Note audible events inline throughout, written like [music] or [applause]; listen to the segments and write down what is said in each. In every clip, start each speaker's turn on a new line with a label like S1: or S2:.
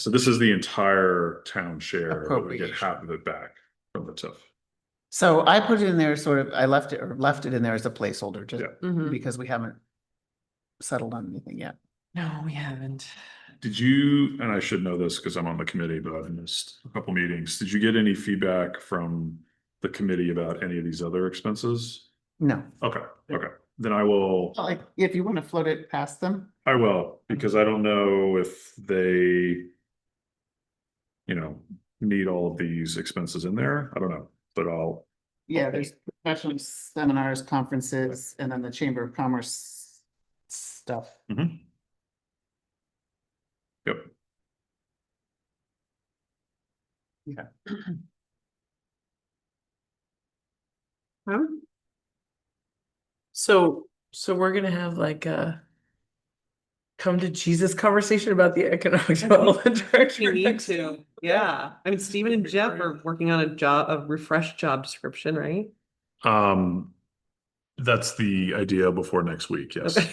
S1: So this is the entire town share, but we get
S2: Appropriation.
S1: half of it back from the TIF.
S2: So I put it in there sort of, I left it, or left it in there as a placeholder, just
S1: Yeah.
S3: Mhm.
S2: because we haven't settled on anything yet.
S3: No, we haven't.
S1: Did you, and I should know this because I'm on the committee, but I missed a couple meetings. Did you get any feedback from the committee about any of these other expenses?
S2: No,
S1: Okay, okay, then I will,
S2: like, if you want to float it past them,
S1: I will, because I don't know if they you know, need all of these expenses in there. I don't know, but I'll,
S2: yeah, there's professional seminars, conferences, and then the Chamber of Commerce stuff.
S1: mhm. Yep,
S2: [clears throat]
S3: So, so
S4: [laughs]
S3: we're gonna have like a come to Jesus conversation about the economic development
S5: We
S3: director.
S5: need
S3: next-
S5: to, yeah. I mean, Steven and Jeff are working on a job, a refreshed job description, right?
S1: um, that's the idea before next week, yes.
S5: Okay.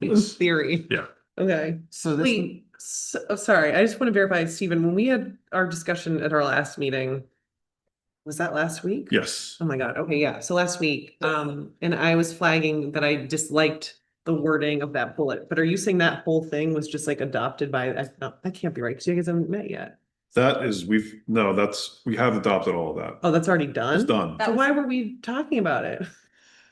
S5: In
S1: Yes.
S5: theory.
S1: Yeah.
S5: Okay.
S2: So this,
S5: Wait, so, oh, sorry, I just want to verify, Steven, when we had our discussion at our last meeting, was that last week?
S1: Yes,
S5: Oh my God, okay, yeah, so last week, um, and I was flagging that I disliked the wording of that bullet, but are you saying that whole thing was just like adopted by, I- no, that can't be right, because you guys haven't met yet.
S1: that is, we've, no, that's, we have adopted all of that.
S5: Oh, that's already done?
S1: It's done,
S5: So why were we talking about it?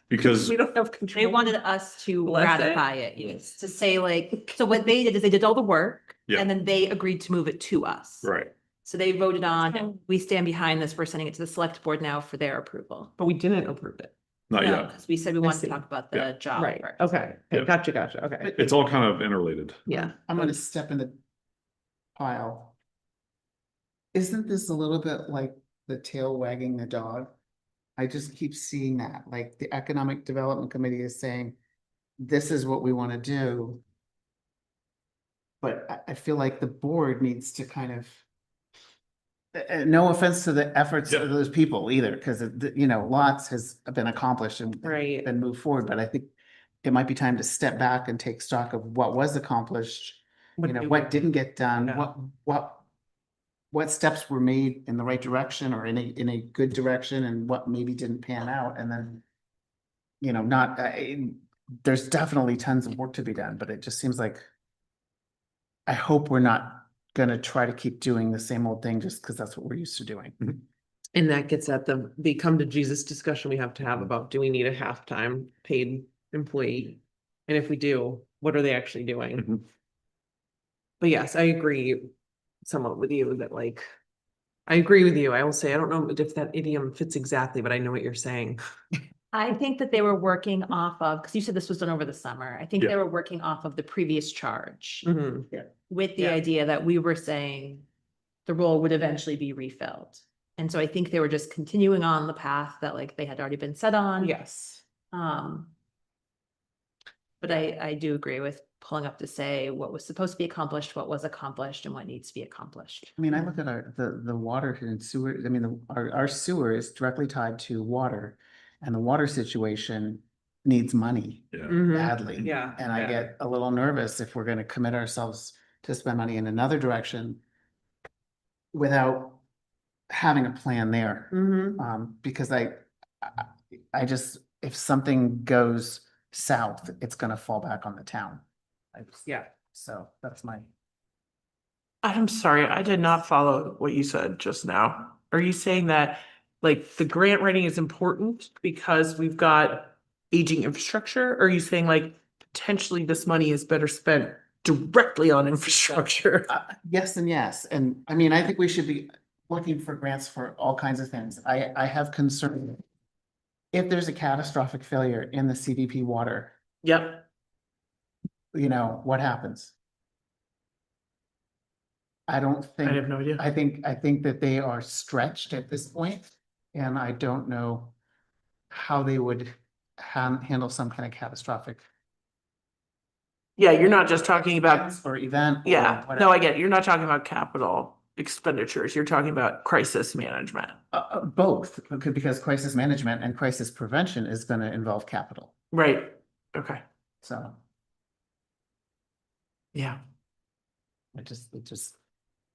S1: because
S5: We don't have control.
S6: They wanted us to
S5: Bless it.
S6: ratify it, yes, to say like, so what they did is they did all the work
S1: Yeah.
S6: and then they agreed to move it to us.
S1: Right.
S6: So they voted on, we stand behind this, we're sending it to the select board now for their approval.
S5: But we didn't approve it.
S1: Not
S6: No,
S1: yet.
S6: 'cause we said we
S5: Oh, I
S6: wanted
S5: see.
S6: to talk about
S1: Yeah.
S6: the job.
S5: Oh, Right,
S6: first.
S5: okay,
S1: Yeah.
S5: gotcha, gotcha, okay,
S1: It's all kind of interrelated.
S5: yeah.
S2: I'm gonna step in the pile. Isn't this a little bit like the tail wagging the dog? I just keep seeing that, like the Economic Development Committee is saying, this is what we want to do. But I, I feel like the board needs to kind of. Uh, uh, no offense to the efforts
S1: Yeah.
S2: of those people either, because you know, lots has been accomplished and. and
S5: Right.
S2: Been moved forward, but I think it might be time to step back and take stock of what was accomplished. You know,
S5: do
S2: what
S5: we-
S2: didn't get done,
S5: Yeah.
S2: what, what. What steps were made in the right direction or in a, in a good direction and what maybe didn't pan out and then. You know, not, uh, in- there's definitely tons of work to be done, but it just seems like. I hope we're not gonna try to keep doing the same old thing just because that's what we're used to doing. Mm-hmm.
S5: And that gets at the, the come to Jesus discussion we have to have about, do we need a half-time paid employee? And if we do, what are they actually
S2: Mm-hmm.
S5: doing?
S1: Mhm.
S5: But yes, I agree somewhat with you that like, I agree with you. I will say, I don't know if that idiom fits exactly, but I know what you're saying.
S6: I think that they were working off of, because you said this was done over the summer, I think
S1: Yeah.
S6: they were working off of the previous charge
S5: Mhm.
S6: with the
S5: Yeah.
S6: idea that we were saying the role would eventually be refilled. And so I think they were just continuing on the path that like they had already been set
S5: Mm-hmm.
S6: on.
S5: Yes.
S6: Um. But I, I do agree with pulling up to say what was supposed to be accomplished, what was accomplished and what needs to be accomplished.
S2: I mean, I look at our, the, the water here and sewer, I mean, the, our, our sewer is directly tied to water. And the water situation needs money
S1: Yeah.
S5: Mhm.
S2: badly.
S5: Yeah.
S2: And I
S5: yeah.
S2: get a little nervous if we're gonna commit ourselves to spend money in another direction without having a plan there.
S5: Mhm.
S2: Um, because I, I, I just, if something goes south, it's gonna fall back on the town. I just-
S5: Yeah.
S2: So that's my.
S4: I'm sorry, I did not follow what you said just now. Are you saying that like the grant writing is important because we've got aging infrastructure? Or are you saying like potentially this money is better spent directly
S3: [laughs]
S4: on infrastructure?
S2: Uh, Yes and yes, and I mean, I think we should be looking for grants for all kinds of things. I, I have concern. If there's a catastrophic failure in the CDP water,
S4: Yep.
S2: you know, what happens? I don't
S4: I have
S2: think,
S4: no idea.
S2: I think, I think that they are stretched at this point, and I don't know how they would han- handle some kind of catastrophic
S4: Yeah, you're not just talking about,
S2: or event. or
S4: yeah, no,
S2: whatever.
S4: I get it. You're not talking about capital expenditures. You're talking about crisis management.
S2: Uh, uh, both, because- because crisis management and crisis prevention is gonna involve capital,
S4: Right. Okay.
S2: so
S4: Yeah.
S2: it just, it just